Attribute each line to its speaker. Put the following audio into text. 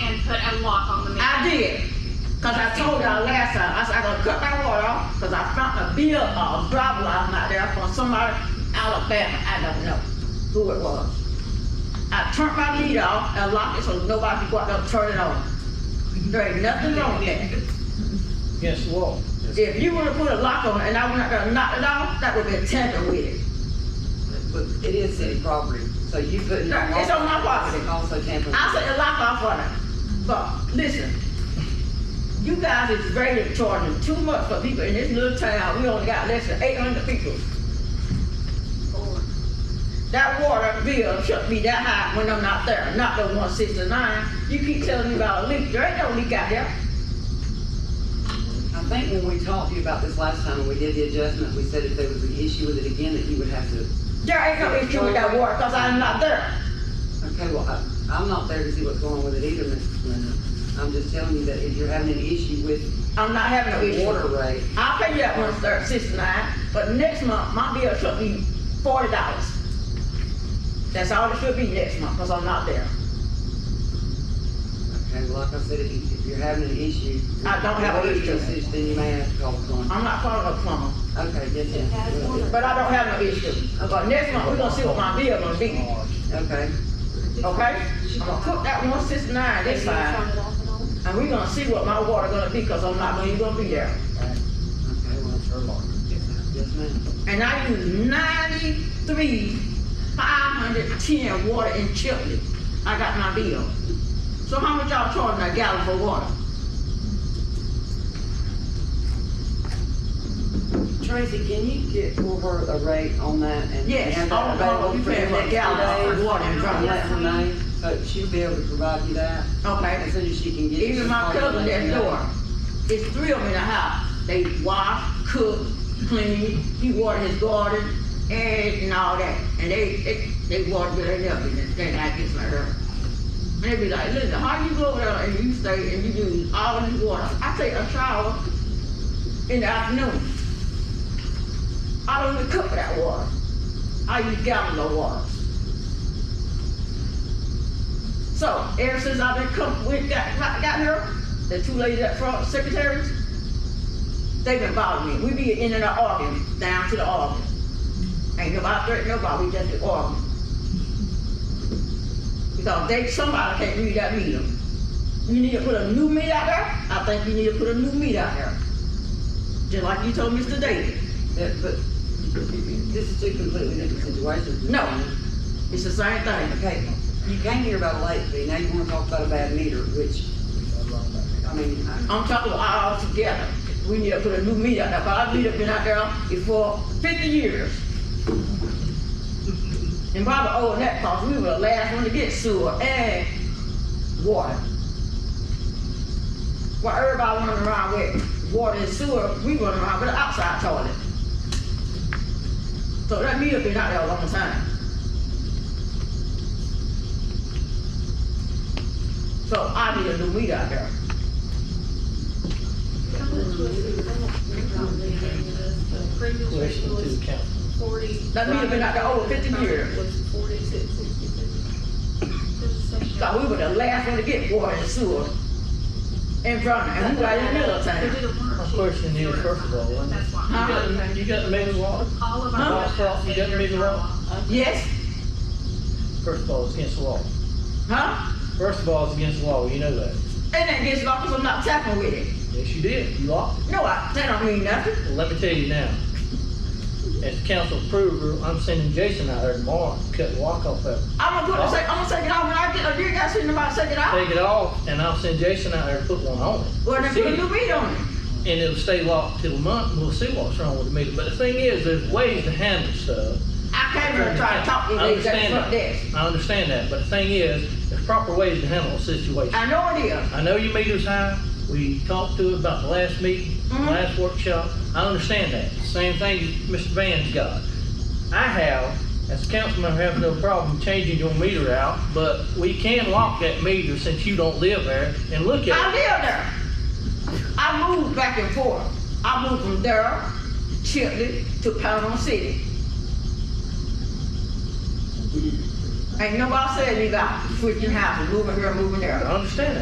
Speaker 1: a mark on the man.
Speaker 2: I did, cause I told y'all last time, I said, I gonna cut my water off, cause I found a bill, uh, blah, blah, out there from somebody Alabama, I don't know who it was. I turned my lead off and locked it so nobody could go out there and turn it on. There ain't nothing wrong with that.
Speaker 3: Against the wall.
Speaker 2: If you would've put a lock on it and I went out there and knocked it off, that would've been tampered with it.
Speaker 4: But it is city property, so you couldn't.
Speaker 2: No, it's on my property.
Speaker 4: Also tamper.
Speaker 2: I set the lock off on it, but listen, you guys is rated charging too much for people in this little town, we only got less than eight hundred people. That water bill should be that high when I'm not there, not the one sixty-nine, you keep telling me about a leak, there ain't no leak out there.
Speaker 4: I think when we talked to you about this last time, when we did the adjustment, we said if there was an issue with it again, that you would have to,
Speaker 2: There ain't no issue with that water, cause I'm not there.
Speaker 4: okay, well, I, I'm not there to see what's going on with it either, Mrs. Linda. I'm just telling you that if you're having an issue with
Speaker 2: I'm not having no
Speaker 4: the
Speaker 2: issue.
Speaker 4: water rate,
Speaker 2: I'll pay you that one third, sixty-nine, but next month, my bill should be forty dollars. That's all it should be next month, cause I'm not there.
Speaker 4: okay, well, like I said, if, you- if you're having an issue.
Speaker 2: I don't have an
Speaker 4: with
Speaker 2: issue.
Speaker 4: usage, Then you may have to call the plumber.
Speaker 2: I'm not calling a plumber,
Speaker 4: Okay, yes, yes.
Speaker 2: but I don't have no issue. But next month, we gonna see what my bill gonna be,
Speaker 4: Okay,
Speaker 2: okay? I'm gonna cook that one sixty-nine this side, and we gonna see what my water gonna be, cause I'm not gonna, you gonna be there.
Speaker 4: okay, well,
Speaker 3: Her lawn.
Speaker 4: yes, ma'am.
Speaker 2: And I use ninety-three, five hundred ten water in Chipley. I got my bill. So how much y'all charging a gallon for water?
Speaker 4: Tracy, can you get for her a rate on that and?
Speaker 2: Yes,
Speaker 4: and
Speaker 2: all
Speaker 4: that
Speaker 2: the,
Speaker 4: available
Speaker 2: you
Speaker 4: for
Speaker 2: paying for a
Speaker 4: next
Speaker 2: gallon
Speaker 4: day?
Speaker 2: of water in
Speaker 4: And let
Speaker 2: Drummond.
Speaker 4: her know, so she'll be able to provide you that as
Speaker 2: Okay,
Speaker 4: soon as she can get. it,
Speaker 2: even
Speaker 4: she'll
Speaker 2: my
Speaker 4: call you and
Speaker 2: cousin
Speaker 4: let you
Speaker 2: next
Speaker 4: know.
Speaker 2: door, it's three of them in the house. They wash, cook, clean, he water his garden, eggs and all that. And they, they, they water with their nothing, and they like this right here. And they be like, listen, how you go over there and you stay and you use all this water? I take a shower in the afternoon. I don't even cook for that water. I use gallons of water. So ever since I've been come, we got, got got here, the two ladies up front, secretaries, they've been bothering me. We be in and out arguing, down to the arguing. Ain't nobody threatening nobody, we just be arguing. Because they, somebody can't read that meter. You need to put a new meter out there, I think you need to put a new meter out there. Just like you told Mr. Davis,
Speaker 4: That- But this is two completely different situations.
Speaker 2: No. it's the same thing.
Speaker 4: Okay, you came here about a late fee, now you wanna talk about a bad meter, which, I mean, I-
Speaker 2: I'm talking about all together. We need to put a new meter out there, but our meter been out there for fifty years. And probably over that, cause we were the last one to get sewer and water. While everybody running around with water and sewer, we running around with an outside toilet. So that meter been out there a long time. So I need a new meter out there.
Speaker 3: Question to the council.
Speaker 1: Forty.
Speaker 2: That meter been out there over 50 years.
Speaker 1: Was forty-six, sixty-six.
Speaker 2: So we were the last one to get water and sewer in front of, and we right in the middle of town.
Speaker 3: My question is, first of all, when-
Speaker 1: That's why.
Speaker 3: You got- You got the mayor's law?
Speaker 1: All of
Speaker 2: Huh?
Speaker 1: our.
Speaker 3: Cross, you got me wrong.
Speaker 2: Yes,
Speaker 3: First of all, it's against the law.
Speaker 2: huh?
Speaker 3: First of all, it's against the law, you know that.
Speaker 2: And that gets locked 'cause I'm not tapping with it.
Speaker 3: Yes, you did, you locked it.
Speaker 2: No, I, that don't mean nothing.
Speaker 3: Well, let me tell you now. As council approver, I'm sending Jason out there tomorrow to cut the lock off of it.
Speaker 2: I'm gonna put it, say, I'm gonna take it out when I get, you guys see nobody take it out.
Speaker 3: Take it off, and I'll send Jason out there to put one on it.
Speaker 2: Well, then put a
Speaker 3: See,
Speaker 2: new meter on it.
Speaker 3: And it'll stay locked till a month, and we'll see what's wrong with the meter. But the thing is, there's ways to handle stuff.
Speaker 2: I came here to try to talk to you
Speaker 3: I
Speaker 2: ladies at the
Speaker 3: understand
Speaker 2: front desk.
Speaker 3: that. I understand that, but the thing is, there's proper ways to handle a situation.
Speaker 2: I know it is.
Speaker 3: I know your meter's high, we talked to it about the last meeting,
Speaker 2: Mhm.
Speaker 3: last workshop, I understand that. Same thing Mr. Van's got. I have, as a council member, have no problem changing your meter out, but we can lock that meter since you don't live there and look
Speaker 2: I
Speaker 3: at it.
Speaker 2: live there. I moved back and forth. I moved from there, Chipley, to Panama City. Ain't nobody said me about switching houses, moving here, moving
Speaker 3: I
Speaker 2: there.
Speaker 3: understand that.